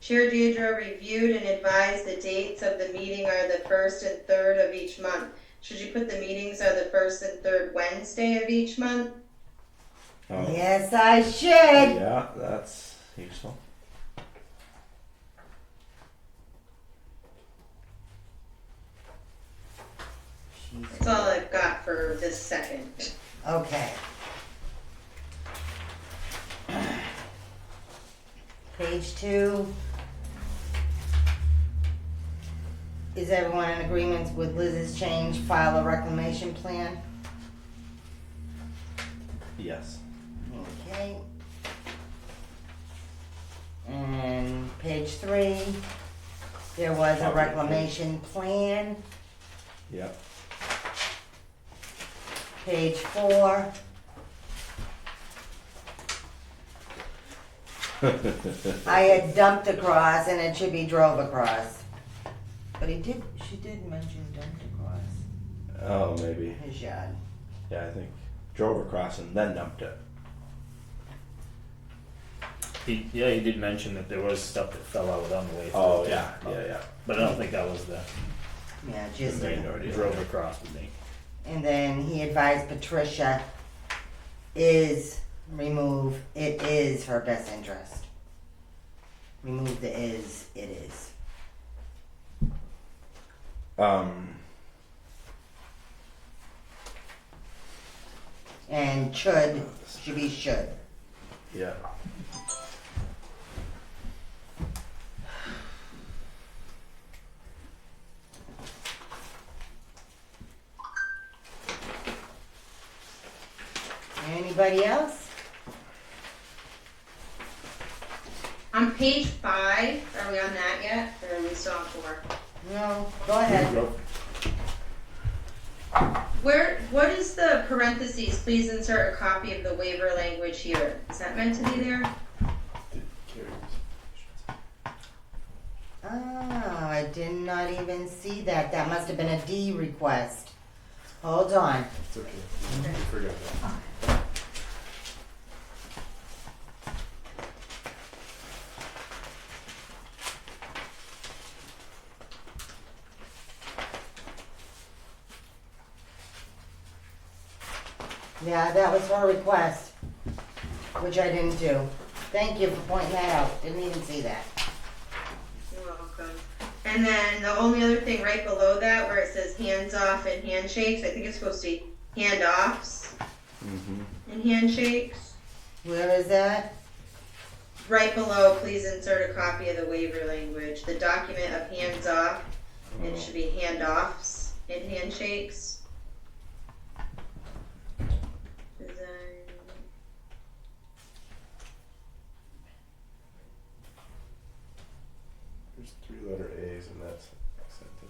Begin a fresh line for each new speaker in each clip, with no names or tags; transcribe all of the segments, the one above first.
Chair Deidre reviewed and advised the dates of the meeting are the first and third of each month. Should you put the meetings are the first and third Wednesday of each month?
Oh,
Yes, I should.
yeah, that's useful.
That's all I've got for this second.
Okay. Page two. Is everyone in agreement with Liz's change, file a reclamation plan?
Yes.
Okay. And page three, there was a reclamation plan.
Yep.
Page four, I had dumped across and it should be drove across. But he did, she did mention dumped across
oh, maybe.
his yard.
Yeah, I think drove across and then dumped it.
He, yeah, he did mention that there was stuff that fell out on the way. through,
Oh
too.
yeah, yeah, yeah.
But I don't think that was the
Yeah, just,
They
and
know it,
drove across with me.
then he advised Patricia is remove, it is her best interest. Remove the is, it is.
Um,
And should, should be should.
yeah.
Anybody else?
On page five, are we on that yet, or are we still on four?
No, go ahead.
Where, what is the parentheses, please insert a copy of the waiver language here, is that meant to be there?
Ah, I did not even see that. That must have been a D request. Hold on. Yeah, that was her request, which I didn't do. Thank you for pointing that out. Didn't even see that.
You're welcome. And then the only other thing right below that where it says hands off and handshakes, I think it's supposed to be handoffs
Mm-hmm.
and handshakes.
Where is that?
Right below, please insert a copy of the waiver language. The document of hands off, it should be handoffs and handshakes. Design.
There's three letter A's in that s- sentence.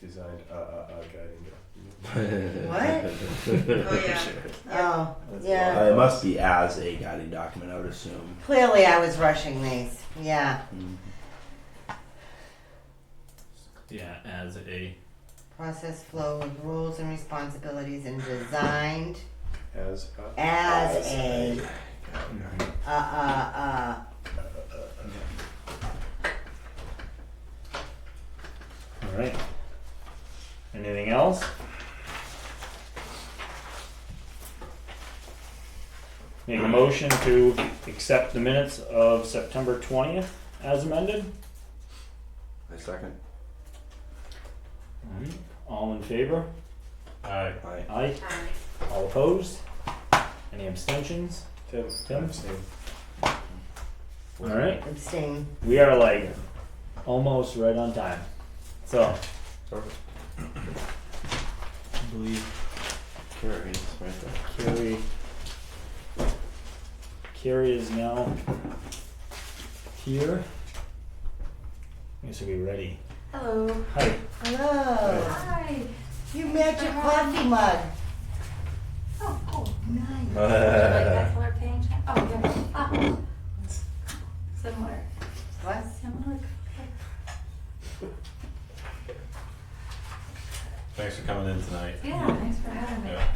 Designed uh uh uh guiding document.
Oh, yeah.
Oh,
That's
yeah.
Uh, it must be as a guiding document, I would assume. Mm-hmm.
Clearly, I was rushing these. Yeah,
Yeah, as a
process flow with rules and responsibilities and designed
As uh,
as a uh uh uh.
all right. Anything else? Make a motion to accept the minutes of September twentieth as amended.
A second.
All right. All in favor? Aye.
Mm-hmm. Aye.
Aye.
Aye.
All opposed? Any abstentions?
Tim.
Tim?
Same.
All right.
Abstain.
We are like almost right on time. So
Perfect.
I believe
Here it is, right there.
Carrie. Carrie is now here. I guess we'll be ready.
Hello.
Hi.
Hello.
Hi.
You met your coffee mug.
Oh, cool.
Uh,
Nice.
Like that color page? Oh, yeah. Ah. Similar.
What?
Similar.
Thanks for coming in tonight.
Yeah, thanks for having me.
Yeah,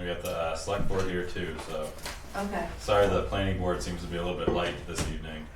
we got the uh, select board here too, so
Okay.
sorry the planning board seems to be a little bit light this evening.